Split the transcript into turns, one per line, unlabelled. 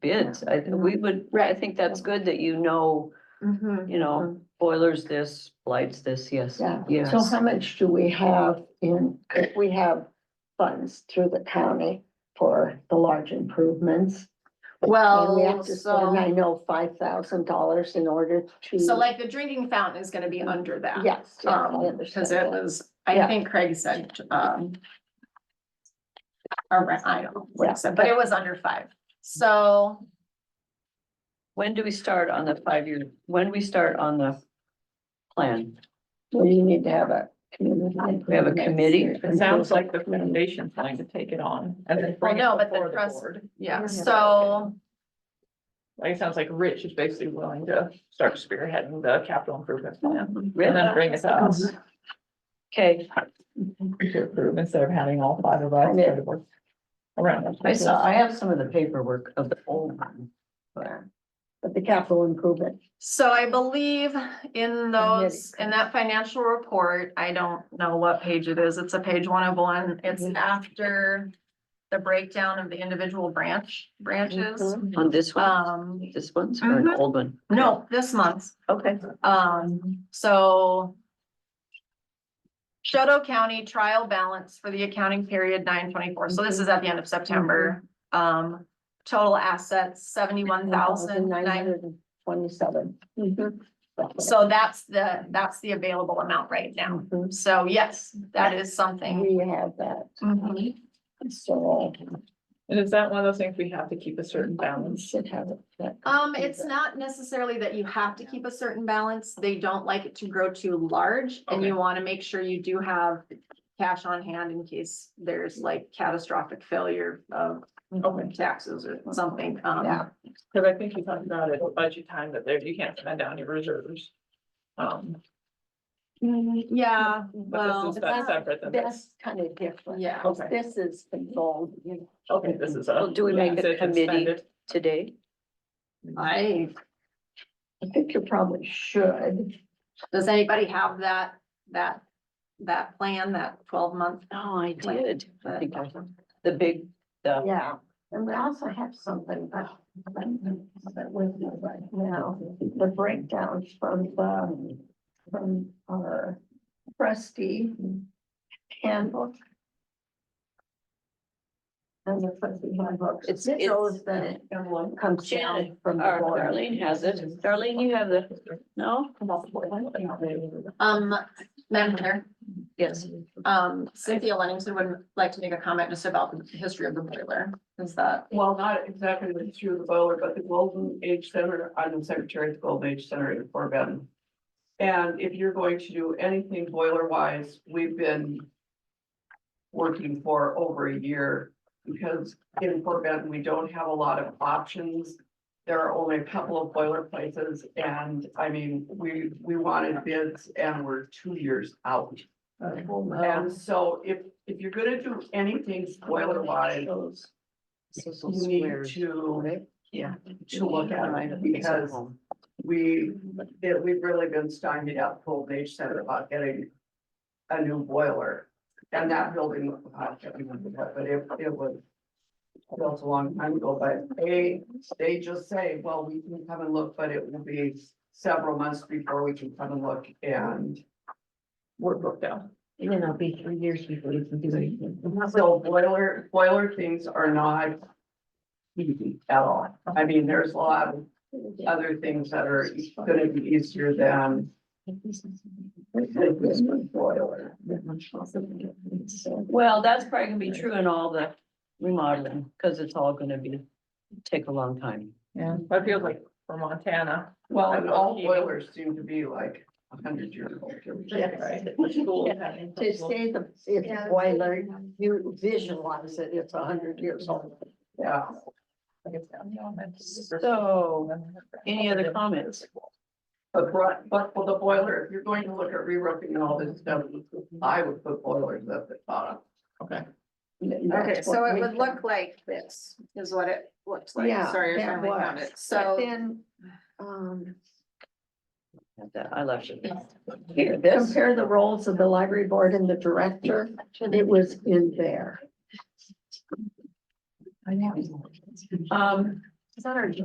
bids. I, we would, I
Right.
think that's good that you know,
Mm-hmm.
Mhm.
you know, boilers this, lights this, yes,
Um, Yeah.
yes.
So how much do we have in, if we have funds through the county for the large improvements? And we have to
Well,
spend, I
Oh, so,
know, five thousand dollars in order to.
so like the drinking fountain is gonna be under that.
Yes. yes, I
Um,
understand
cause it
that.
was, I
Yeah.
think Craig said, um. Around, I don't know what
Yeah.
he said, but it was under five, so
When do we start on the five-year, when we start on the plan?
We need to have a community.
We have a committee?
It sounds like the foundation's going to take it on and then
Well,
bring it
no, but the
before the
trust-
board.
Yeah, so,
Like, it sounds like Rich is basically willing to start spearheading the capital improvement plan and
Really?
then bring it to us
Okay,
to approve instead of having all five of us go to work around.
I saw, I have some of the paperwork of the old one. but-
But the capital improvement,
so I believe in those, in that financial report, I don't know what page it is, it's a page one of one, it's
Mhm.
after. The breakdown of the individual branch, branches,
Mhm.
On this one,
um,
this one's or an
mhm.
old one?
no, this month.
Okay,
Um, so. Shoto County trial balance for the accounting period nine twenty-four, so this is at the end of September. Um, total assets seventy-one thousand nine,
Twenty-seven. Mm-hmm.
so that's the, that's the available amount right now.
Mhm.
So yes, that is something.
We have that,
Mhm.
so
And is that one of those things we have to keep a certain
we
balance?
should have it.
Um, it's not necessarily that you have to keep a certain balance, they don't like it to grow too large, and you wanna make sure you do have. Cash on hand in case there's like catastrophic failure of open taxes or something,
Yeah.
um,
Cause I think you talked about it at budget time that there, you can't spend down your reserves. Um,
Mm-hmm. yeah,
but
well.
this is that's separate than this.
That's kind of different.
Yeah.
Because This is controlled, you know.
Okay, this is a.
Well, do we make it
Sit and
committee?
spend it.
today,
I,
I think you probably should.
does anybody have that, that, that plan, that twelve month?
no, Oh, I did, I think I,
But
the big, the
Yeah, and we also have something about. That with me right now, the breakdowns from the, from our trustee handbook. And the trustee handbook.
It's-
It
it's-
shows that it comes down from the
Or
board.
Darlene has it. Darlene, you have the, no?
Um, Madam Chair,
Yes.
um, Cynthia Lenningson would like to make a comment just about the history of the boiler, is that?
Well, not exactly the history of the boiler, but the Golden Age Center, I'm the secretary of the Golden Age Center in Fort Benton. And if you're going to do anything boiler wise, we've been working for over a year because in Fort Benton, we don't have a lot of options. There are only a couple of boiler places and I mean, we, we wanted bids and we're two years out. And so if, if you're gonna do anything boiler wise, you need to,
Yeah.
to look at it because we, that we've really been stymied out full age center about getting a new boiler. And that building, I can't remember what, but it, it was built a long time ago, but they, they just say, well, we can come and look, but it will be several months before we can come and look and
We're booked out.
Then it'll be three years before you can do anything.
so boiler, boiler things are not easy at all. I mean, there's a lot of other things that are gonna be easier than
Well, that's probably gonna be true in all the remodeling, because it's all gonna be, take a long time.
Yeah, that feels like for Montana.
Well,
and
all
all
boilers
boilers
seem to be like a hundred years old.
Yes. To
Just
say the, it's a boiler, you visualize it, it's a hundred years old.
Yeah,
So, any other comments?
but right, but for the boiler, if you're going to look at re-roofing and all this stuff, I would put boilers up at bottom.
Okay.
Okay, so it would look like this is what it looks like.
Yeah,
Sorry, I
that
finally found
was.
it. So
Then, um,
I left it.
here, compare the roles of the library board and the director, it was in there.
Um,
Is that our